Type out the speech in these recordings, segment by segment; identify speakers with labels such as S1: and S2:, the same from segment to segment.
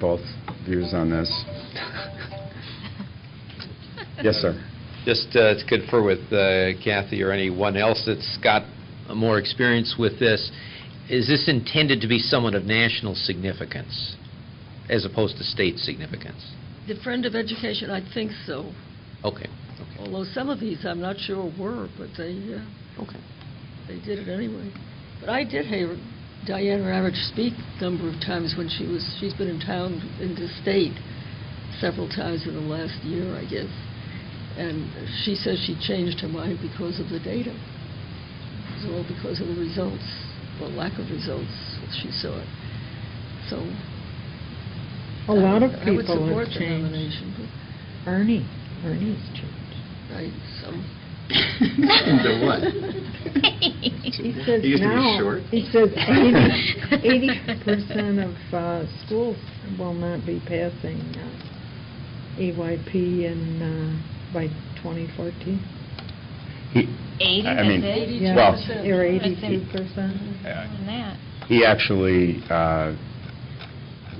S1: both views on this. Yes, sir.
S2: Just uh, to confer with uh, Kathy or anyone else that's got more experience with this, is this intended to be someone of national significance as opposed to state significance?
S3: The Friend of Education, I think so,
S2: Okay, okay,
S3: although some of these I'm not sure were, but they, uh,
S2: okay.
S3: they did it anyway. But I did hear Diane Ravitch speak a number of times when she was, she's been in town, in the state, several times in the last year, I guess. And she says she changed her mind because of the data. It was all because of the results, or lack of results, she saw it. So...
S4: A lot of
S3: I would
S4: people
S3: support
S4: have
S3: the
S4: changed.
S3: nomination, but-
S4: Ernie, Ernie's changed.
S3: Right, so,
S1: Into what?
S4: He
S1: He
S4: says
S1: used to be
S4: now,
S1: short.
S4: he says eighty percent of uh, schools will not be passing uh, EYP in, uh, by 2014.
S1: He-
S5: Eighty,
S1: I- I
S5: that's
S1: mean,
S5: it?
S1: Yeah. Well-
S4: Or
S5: I think-
S4: 82%.
S1: Yeah.
S5: More than that.
S1: He actually, uh,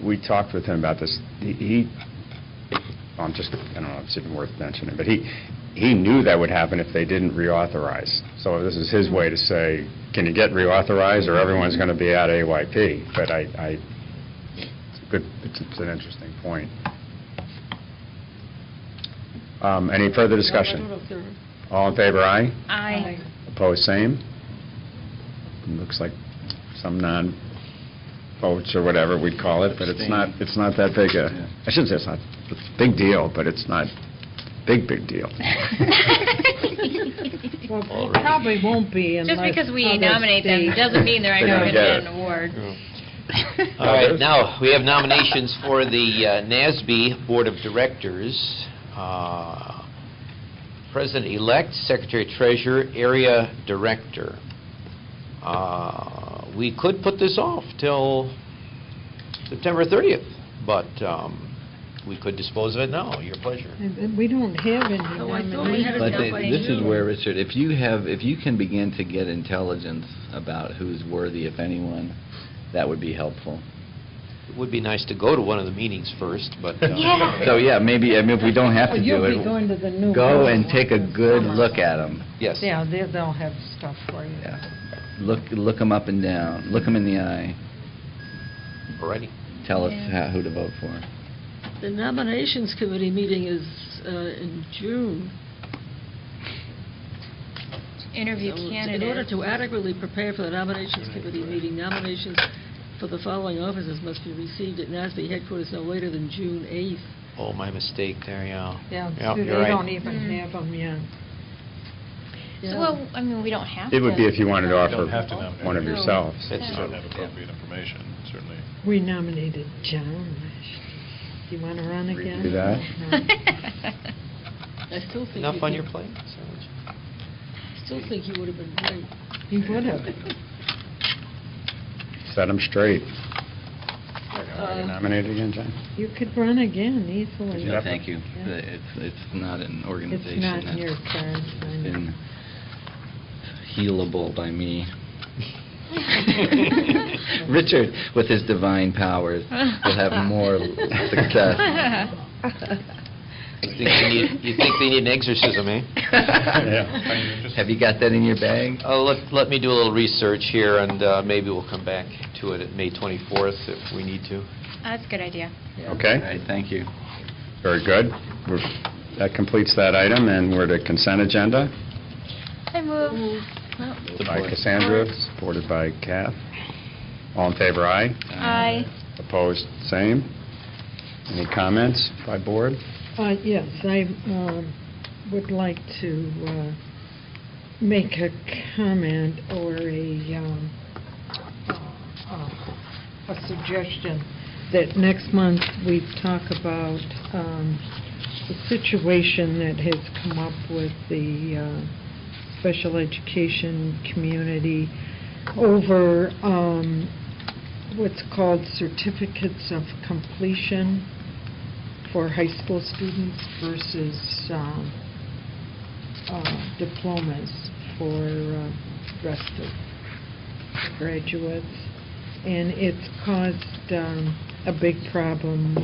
S1: we talked with him about this. He- He, I'm just, I don't know, if it's even worth mentioning, but he, he knew that would happen if they didn't reauthorize. So this is his way to say, can you get reauthorized, or everyone's going to be at AYP? But I, I, it's a good, it's it's an interesting point. Um, Any further
S3: I don't know
S1: discussion?
S3: if there are
S1: All in favor, aye?
S5: I,
S1: Opposed, same. Looks like some non-votes or whatever we'd call it, but it's not, it's not that big a, I shouldn't say it's not, it's a big deal, but it's not big, big deal.
S4: Well,
S2: All
S4: it
S2: right.
S4: probably won't be unless...
S5: just because we
S4: other
S5: nominate them
S4: states-
S5: doesn't mean they're
S1: They're gonna
S5: not going to
S1: get
S5: get
S1: it.
S5: an award.
S2: All right, now, we have nominations for the uh, NASB Board of Directors. Uh, President-elect, Secretary-Treasurer, Area Director. Uh, We could put this off till September 30th, but um, we could dispose of it now, your pleasure.
S4: And- and We don't have any
S5: Oh,
S3: No, I thought we had
S6: But
S3: enough
S6: they-
S3: by
S6: this is
S3: June.
S6: where, Richard, if you have, if you can begin to get intelligence about who's worthy, if anyone, that would be helpful.
S2: It would be nice to go to one of the meetings first, but... uh,
S5: Yeah.
S6: So, yeah, maybe, I mean, if we don't have to
S4: Well,
S6: do
S4: you'll be going to
S6: it,
S4: the new...
S6: go and
S4: one.
S6: take a good look at them.
S2: Yes.
S4: Yeah, they- they'll have stuff for you.
S6: Look, look them up and down, look them in the eye,
S2: All righty.
S6: tell us
S5: Yeah.
S6: how, who to vote for.
S3: The nominations committee meeting is uh, in June.
S5: Interview
S3: So In order
S5: candidates.
S3: to adequately prepare for the nominations committee meeting, nominations for the following offices must be received at NASB headquarters no later than June 8th.
S2: Oh, my mistake there, yeah.
S4: Yeah,
S2: Yeah,
S4: they
S2: you're right.
S4: don't even
S5: Mm.
S4: have them yet.
S3: Yeah.
S5: So, well, I mean, we don't have to.
S1: It would be if you wanted to
S7: don't have to
S1: offer
S7: nominate.
S1: one of
S3: No.
S1: yourselves.
S2: That's
S7: If you
S2: true.
S7: don't have appropriate information, certainly.
S4: We nominated John. Do you want to run
S1: Redo
S4: again?
S1: that?
S4: No.
S3: I still think...
S2: Enough
S3: you
S2: on
S3: could-
S2: your plate? Sarge?
S3: I still think you would have been right.
S4: He would have.
S1: Set them straight. Are you
S3: Uh,
S1: Nominated again, John?
S4: You could run again easily.
S1: Yeah.
S6: No, Thank you. It's, it's not an organization.
S4: It's not in your
S6: that's
S4: terms. I know.
S6: Been healable by me. Richard, with his divine powers, will have more success.
S2: You think they need- you think they need an exorcism, eh?
S1: Yeah.
S6: Have you got that in your bag?
S2: Uh, Let let me do a little research here, and uh, maybe we'll come back to it at May 24th if we need to.
S5: That's a good idea.
S6: All
S1: Okay,
S6: right, thank you.
S1: very good. We're- That completes that item, and we're to consent agenda.
S5: I move.
S1: Moved By Cassandra, supported by Kath. All in favor, aye?
S5: I,
S1: Opposed, same. Any comments by board?
S4: Uh, Yes, I um, would like to uh, make a comment or a, um, uh, a suggestion that next month we talk about um, the situation that has come up with the uh, special education community over um, what's called certificates of completion for high school students versus um, uh, diplomas for uh, rest of graduates. And it's caused um, a big problem